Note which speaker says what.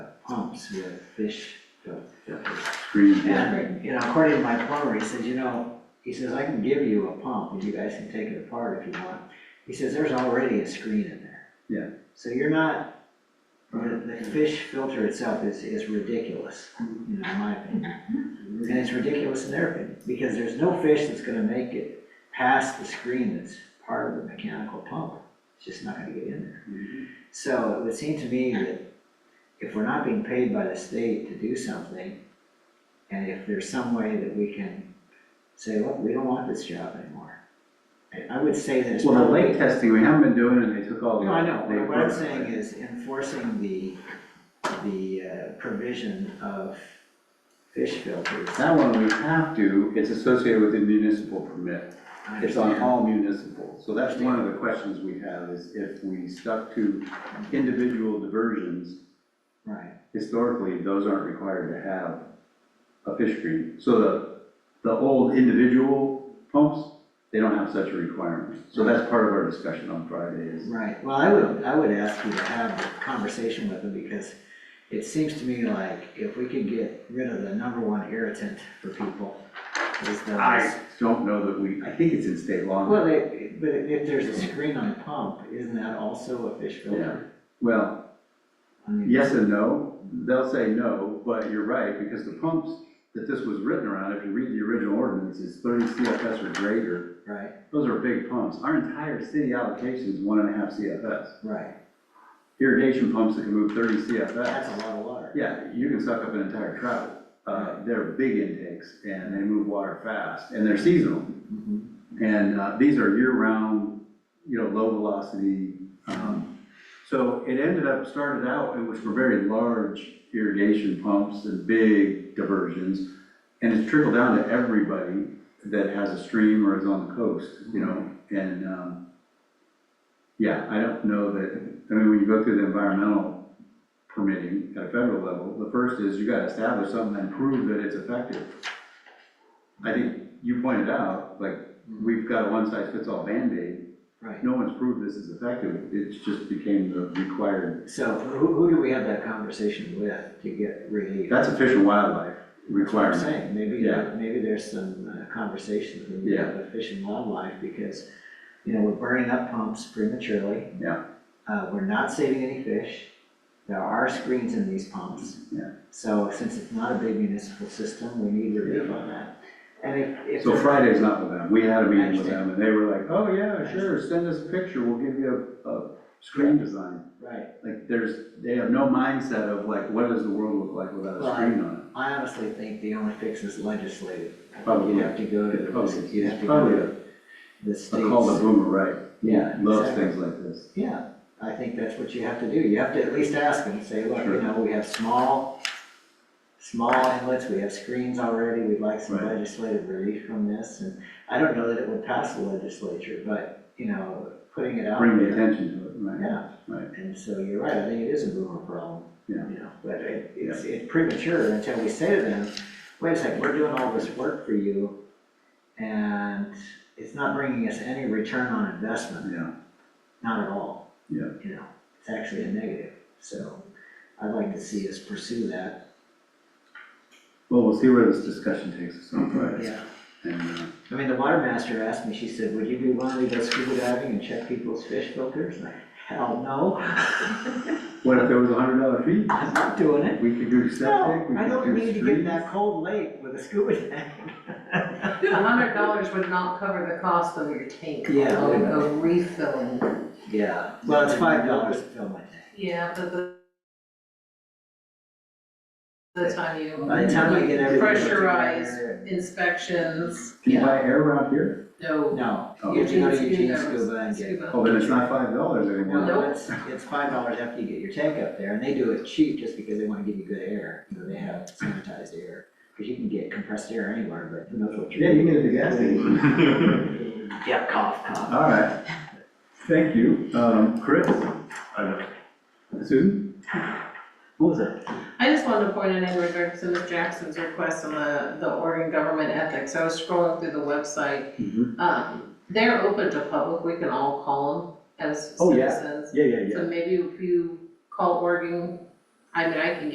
Speaker 1: pumps, we have fish, go.
Speaker 2: Green, yeah,
Speaker 1: And, you know, according to my plumber, he says, you know, he says, I can give you a pump and you guys can take it apart if you want. He says, there's already a screen in there.
Speaker 2: Yeah.
Speaker 1: So you're not, the, the fish filter itself is, is ridiculous, you know, in my opinion. And it's ridiculous in their opinion, because there's no fish that's gonna make it past the screen that's part of the mechanical pump. It's just not gonna get in there. So it would seem to me that if we're not being paid by the state to do something, and if there's some way that we can say, look, we don't want this job anymore. I- I would say that it's
Speaker 2: well, the
Speaker 1: probably.
Speaker 2: lake testing, we haven't been doing, and they took all the.
Speaker 1: No, I know,
Speaker 2: they-
Speaker 1: but what I'm saying is enforcing the, the uh, provision of fish filters.
Speaker 2: That one, we have to, it's associated with the municipal permit,
Speaker 1: I
Speaker 2: it's on
Speaker 1: understand.
Speaker 2: all municipal, so that's one of the questions we have, is if we stuck to individual diversions,
Speaker 1: Right,
Speaker 2: historically, those aren't required to have a fish screen. So the, the old individual pumps, they don't have such a requirement. So that's part of our discussion on Friday is,
Speaker 1: right. Well, I would, I would ask you to have a conversation with them because it seems to me like if we could get rid of the number one irritant for people is those.
Speaker 2: I don't know that we, I think it's in state law.
Speaker 1: Well, they- but if there's a screen on a pump, isn't that also a fish filter?
Speaker 2: Well,
Speaker 1: I mean,
Speaker 2: yes and no, they'll say no, but you're right, because the pumps that this was written around, if you read the original ordinance, is thirty CFS or greater.
Speaker 1: Right,
Speaker 2: Those are big pumps. Our entire city allocation is one and a half CFS.
Speaker 1: right.
Speaker 2: Irrigation pumps that can move thirty CFS.
Speaker 1: That's a lot of water.
Speaker 2: Yeah, you can suck up an entire trout. Uh, they're big intakes and they move water fast and they're seasonal.
Speaker 1: Mhm.
Speaker 2: And, uh, these are year-round, you know, low velocity. Um, so it ended up, started out, it was for very large irrigation pumps and big diversions. And it's trickled down to everybody that has a stream or is on the coast, you know, and, um, yeah, I don't know that, I mean, when you go through the environmental permitting at a federal level, the first is you gotta establish something and prove that it's effective. I think you pointed out, like,
Speaker 1: Mm-hmm.
Speaker 2: we've got a one-size-fits-all Band-Aid,
Speaker 1: Right.
Speaker 2: no one's proved this is effective, it's just became the required,
Speaker 1: So who, who do we have that conversation with to get relief?
Speaker 2: that's a fish and wildlife
Speaker 1: That's what I'm
Speaker 2: requirement.
Speaker 1: saying. Maybe,
Speaker 2: Yeah.
Speaker 1: there- maybe there's some uh, conversations with the
Speaker 2: Yeah.
Speaker 1: uh, Fish and Wildlife because, you know, we're burning up pumps prematurely.
Speaker 2: Yeah.
Speaker 1: Uh, we're not saving any fish. There are screens in these pumps.
Speaker 2: Yeah.
Speaker 1: So since it's not a big municipal system, we need relief on that. And if, if.
Speaker 2: So
Speaker 1: there's-
Speaker 2: Friday's not with them, we had a meeting with
Speaker 1: Understand.
Speaker 2: them, and they were like, oh yeah,
Speaker 1: Understand.
Speaker 2: sure, send us a picture, we'll give you a, a screen design.
Speaker 1: Right.
Speaker 2: Like, there's, they have no mindset of like, what does the world look like without a
Speaker 1: Right.
Speaker 2: screen on
Speaker 1: I honestly think the only fix is legislative. I think
Speaker 2: Probably.
Speaker 1: You have to go to,
Speaker 2: it?
Speaker 1: the-
Speaker 2: Probably-
Speaker 1: you have to go
Speaker 2: Probably
Speaker 1: to
Speaker 2: a,
Speaker 1: the
Speaker 2: a call to
Speaker 1: states.
Speaker 2: boomer, right?
Speaker 1: Yeah,
Speaker 2: Loves
Speaker 1: exactly.
Speaker 2: things like this.
Speaker 1: Yeah, I think that's what you have to do. You have to at least ask them, say, look, you
Speaker 2: Sure.
Speaker 1: know, we have small, small inlets, we have screens already, we'd like some
Speaker 2: Right.
Speaker 1: legislative relief from this. And I don't know that it would pass the legislature, but, you know, putting it out
Speaker 2: Bring the
Speaker 1: there.
Speaker 2: attention to it, right?
Speaker 1: Yeah,
Speaker 2: Right.
Speaker 1: and so you're right, I think it is a boomer problem.
Speaker 2: Yeah.
Speaker 1: You know, but it, it's, it's premature until we say to them, wait a second, we're doing all this work for you, and it's not bringing us any return on investment,
Speaker 2: Yeah,
Speaker 1: not at all.
Speaker 2: Yeah.
Speaker 1: You know, it's actually a negative, so I'd like to see us pursue that.
Speaker 2: well, we'll see where this discussion takes us
Speaker 1: Mm-hmm.
Speaker 2: on Friday.
Speaker 1: Yeah.
Speaker 2: And, uh,
Speaker 1: I mean, the water master asked me, she said, would you be willing to go scuba diving and check people's fish filters? And I, hell no,
Speaker 2: what if there was a hundred dollar fee?
Speaker 1: I'm not doing it.
Speaker 2: We could do
Speaker 1: No,
Speaker 2: septic, we
Speaker 1: I
Speaker 2: could
Speaker 1: don't
Speaker 2: do
Speaker 1: need to get in
Speaker 2: streets.
Speaker 1: that cold lake with a scuba tank.
Speaker 3: A hundred dollars would not cover the cost of your tank
Speaker 1: Yeah.
Speaker 3: alone, of refilling.
Speaker 1: Yeah, well, it's five dollars to fill my tank.
Speaker 3: Yeah, but the the time
Speaker 1: By the time I get
Speaker 3: you
Speaker 1: everything. put
Speaker 3: pressurize
Speaker 1: together
Speaker 3: inspections,
Speaker 2: Can you
Speaker 3: yeah,
Speaker 2: buy air out here?
Speaker 3: no.
Speaker 1: No,
Speaker 2: Oh.
Speaker 1: you have to go to
Speaker 3: Eugene
Speaker 1: Eugene
Speaker 3: Scuba.
Speaker 1: Scuba and get.
Speaker 3: Scuba.
Speaker 2: Oh, then it's not five dollars
Speaker 1: Well,
Speaker 2: anymore.
Speaker 1: no,
Speaker 3: Nope.
Speaker 1: it's, it's five dollars after you get your tank up there, and they do it cheap just because they wanna give you good air, you know, they have sanitized air. Cause you can get compressed air anywhere, but who knows what you're.
Speaker 2: Yeah, you can get it at the gas station.
Speaker 1: Yeah, cough, cough.
Speaker 2: All right, thank you. Um, Chris? Susan? What was that?
Speaker 3: I just wanted to point out in regards to Ms. Jackson's request on the, the Oregon government ethics, I was scrolling through the
Speaker 2: Mhm.
Speaker 3: website.
Speaker 1: Mm-hmm.
Speaker 3: Um, they're open to public, we can all call them as
Speaker 2: Oh, yeah.
Speaker 3: citizens.
Speaker 2: Yeah, yeah, yeah.
Speaker 3: So maybe if you call Oregon, I mean, I can